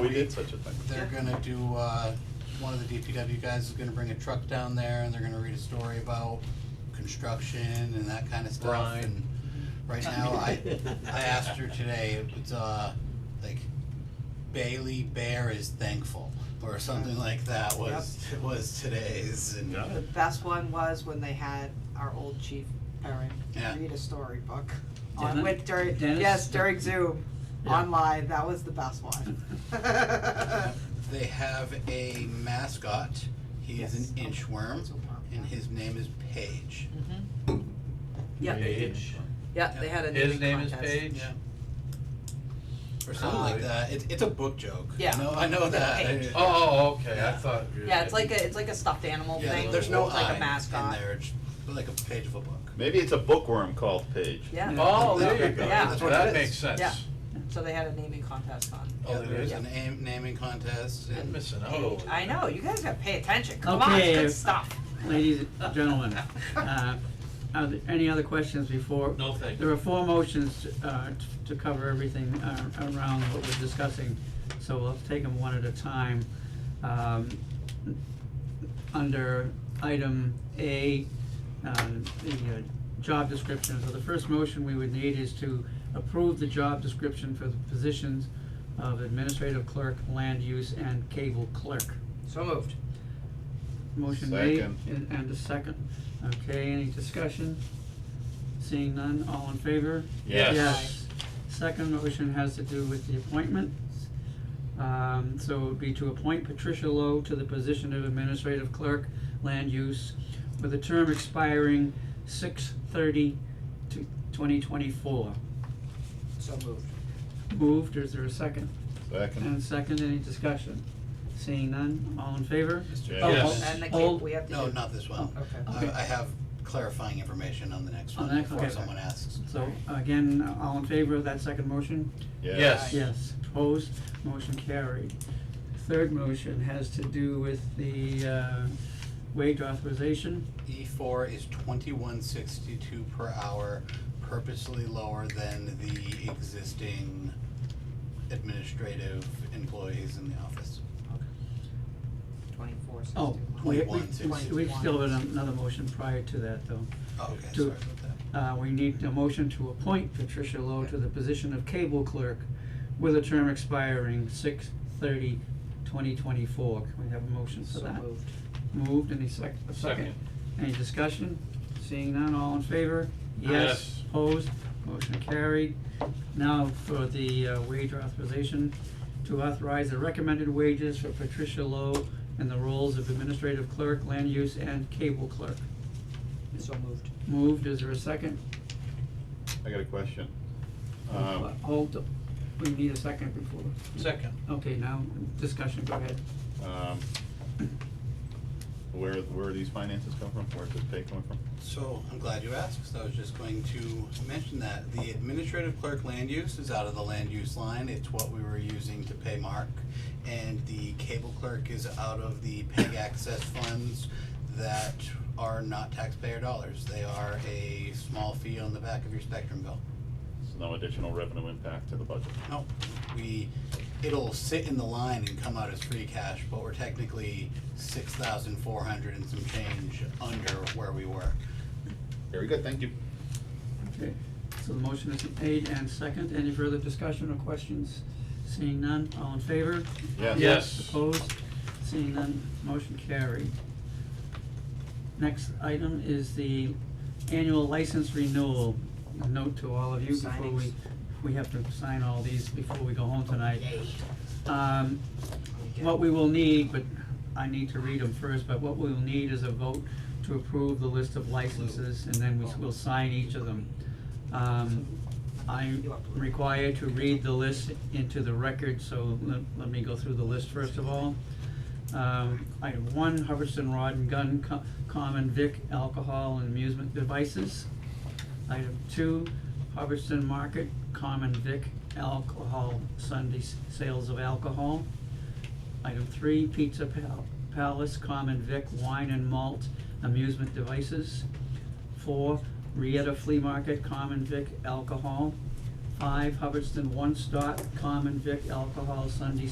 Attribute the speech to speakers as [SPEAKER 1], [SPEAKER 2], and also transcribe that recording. [SPEAKER 1] We did such a thing.
[SPEAKER 2] They're gonna do, uh, one of the DPW guys is gonna bring a truck down there and they're gonna read a story about construction and that kinda stuff.
[SPEAKER 1] Right.
[SPEAKER 2] And right now, I, I asked her today, it's, uh, like Bailey Bear is thankful or something like that was, was today's and.
[SPEAKER 1] Got
[SPEAKER 3] The
[SPEAKER 1] it.
[SPEAKER 3] best one was when they had our old chief, Erin,
[SPEAKER 2] Yeah.
[SPEAKER 3] read a storybook on
[SPEAKER 4] Dennis-
[SPEAKER 3] with during,
[SPEAKER 4] Dennis-
[SPEAKER 3] yes, during Zoom,
[SPEAKER 4] Yeah.
[SPEAKER 3] on live, that was the best one.
[SPEAKER 2] They have a mascot, he is an
[SPEAKER 3] Yes.
[SPEAKER 2] inchworm
[SPEAKER 3] Inchworm,
[SPEAKER 2] and
[SPEAKER 3] yeah.
[SPEAKER 2] his name is Paige.
[SPEAKER 3] Yeah,
[SPEAKER 1] Paige.
[SPEAKER 3] yeah, they had a naming
[SPEAKER 1] His
[SPEAKER 3] contest.
[SPEAKER 1] name is Paige?
[SPEAKER 2] Yeah. Or something like that. It, it's a book joke.
[SPEAKER 3] Yeah.
[SPEAKER 2] I know, I know that.
[SPEAKER 3] Paige.
[SPEAKER 1] Oh, oh, okay, I
[SPEAKER 2] Yeah.
[SPEAKER 1] thought. you were-
[SPEAKER 3] Yeah, it's like a, it's like a stuffed animal
[SPEAKER 2] Yeah,
[SPEAKER 3] thing,
[SPEAKER 2] there's no
[SPEAKER 3] it's like
[SPEAKER 2] I
[SPEAKER 3] a
[SPEAKER 2] in
[SPEAKER 3] mascot,
[SPEAKER 2] there. It's like a page of a book.
[SPEAKER 5] Maybe it's a bookworm called Paige.
[SPEAKER 3] yeah.
[SPEAKER 1] Oh, there you go,
[SPEAKER 3] Yeah. That's
[SPEAKER 2] what it
[SPEAKER 1] that
[SPEAKER 2] is.
[SPEAKER 1] makes sense.
[SPEAKER 3] Yeah. So they had a naming contest on.
[SPEAKER 1] Oh,
[SPEAKER 2] Yeah,
[SPEAKER 1] there
[SPEAKER 2] there's
[SPEAKER 1] is?
[SPEAKER 2] an aim, naming contest.
[SPEAKER 1] I'm
[SPEAKER 2] And
[SPEAKER 1] Missing out.
[SPEAKER 3] Paige,
[SPEAKER 1] over
[SPEAKER 3] I
[SPEAKER 1] that.
[SPEAKER 3] know, you guys gotta pay attention, come on,
[SPEAKER 4] Okay.
[SPEAKER 3] it's good stuff.
[SPEAKER 4] Ladies and gentlemen, uh, are there any other questions before?
[SPEAKER 1] No, thank
[SPEAKER 4] There
[SPEAKER 1] you.
[SPEAKER 4] are four motions, uh, t- to cover everything, uh, around what we're discussing, so we'll take them one at a time. Um, under item A, uh, the, uh, job description, so the first motion we would need is to approve the job description for the positions of administrative clerk, land use, and cable clerk.
[SPEAKER 3] So moved.
[SPEAKER 4] Motion made
[SPEAKER 5] Second.
[SPEAKER 4] and, and a second. Okay, any discussion? Seeing none, all in favor?
[SPEAKER 1] Yes.
[SPEAKER 4] Second motion has to do with the appointments. Um, so it would be to appoint Patricia Lowe to the position of administrative clerk, land use, with a term expiring six thirty to twenty twenty-four.
[SPEAKER 3] So moved.
[SPEAKER 4] Moved, is there a second?
[SPEAKER 5] Second.
[SPEAKER 4] And second, any discussion? Seeing none, all in favor?
[SPEAKER 5] Mr.
[SPEAKER 4] Oh,
[SPEAKER 1] Yes.
[SPEAKER 4] hold-
[SPEAKER 3] And the
[SPEAKER 4] hold.
[SPEAKER 3] cape, we have to do.
[SPEAKER 2] no, not this one.
[SPEAKER 3] Okay.
[SPEAKER 2] I, I have clarifying information on the next
[SPEAKER 4] On
[SPEAKER 2] one
[SPEAKER 4] the next one,
[SPEAKER 2] before
[SPEAKER 4] okay.
[SPEAKER 2] someone asks.
[SPEAKER 4] So again, all in favor of that second motion?
[SPEAKER 1] Yes.
[SPEAKER 4] Yes, opposed, motion carried. Third motion has to do with the uh, wage authorization.
[SPEAKER 2] E four is twenty-one sixty-two per hour, purposely lower than the existing administrative employees in the office.
[SPEAKER 3] Twenty-four, sixty.
[SPEAKER 4] Oh, we, we,
[SPEAKER 2] 21.60.
[SPEAKER 4] we still have another motion prior to that though.
[SPEAKER 2] Oh, okay,
[SPEAKER 4] To-
[SPEAKER 2] sorry about that.
[SPEAKER 4] Uh, we need a motion to appoint Patricia Lowe to the position of cable clerk with a term expiring six thirty twenty twenty-four. Can we have a motion for
[SPEAKER 3] So
[SPEAKER 4] that?
[SPEAKER 3] moved.
[SPEAKER 4] Moved, any sec- a second?
[SPEAKER 1] Second.
[SPEAKER 4] Any discussion? Seeing none, all in favor?
[SPEAKER 1] Yes.
[SPEAKER 4] Opposed, motion carried. Now for the uh, wage authorization, to authorize the recommended wages for Patricia Lowe in the roles of administrative clerk, land use, and cable clerk.
[SPEAKER 3] So moved.
[SPEAKER 4] Moved, is there a second?
[SPEAKER 5] I got a question. Um,
[SPEAKER 4] Hold, we need a second before,
[SPEAKER 1] Second.
[SPEAKER 4] okay, now, discussion, go ahead.
[SPEAKER 5] um, where, where are these finances come from? Where's this pay coming from?
[SPEAKER 2] So I'm glad you asked, because I was just going to mention that. The administrative clerk land use is out of the land use line. It's what we were using to pay Mark. And the cable clerk is out of the PEG access funds that are not taxpayer dollars. They are a small fee on the back of your spectrum bill.
[SPEAKER 5] So no additional revenue impact to the budget.
[SPEAKER 2] No, we, it'll sit in the line and come out as free cash, but we're technically six thousand four hundred and some change under where we were.
[SPEAKER 5] Very good, thank you.
[SPEAKER 4] Okay, so the motion is made and second, any further discussion or questions? Seeing none, all in favor?
[SPEAKER 5] Yes.
[SPEAKER 1] Yes.
[SPEAKER 4] Opposed, seeing none, motion carried. Next item is the annual license renewal. A Note to all of you before we,
[SPEAKER 3] Signings.
[SPEAKER 4] we have to sign all these before we go home tonight. Um, what we will need, but I need to read them first, but what we'll need is a vote to approve the list of licenses, and then we s- we'll sign each of them. Um, I'm required to read the list into the record, so let, let me go through the list first of all. Um, item one, Hubbardston Rod and Gun Co- Common Vic Alcohol and Amusement Devices. Item two, Hubbardston Market Common Vic Alcohol Sunday s- Sales of Alcohol. Item three, Pizza Pal- Palace Common Vic Wine and Malt Amusement Devices. Four, Rieta Flea Market Common Vic Alcohol. Five, Hubbardston One Stop Common Vic Alcohol Sunday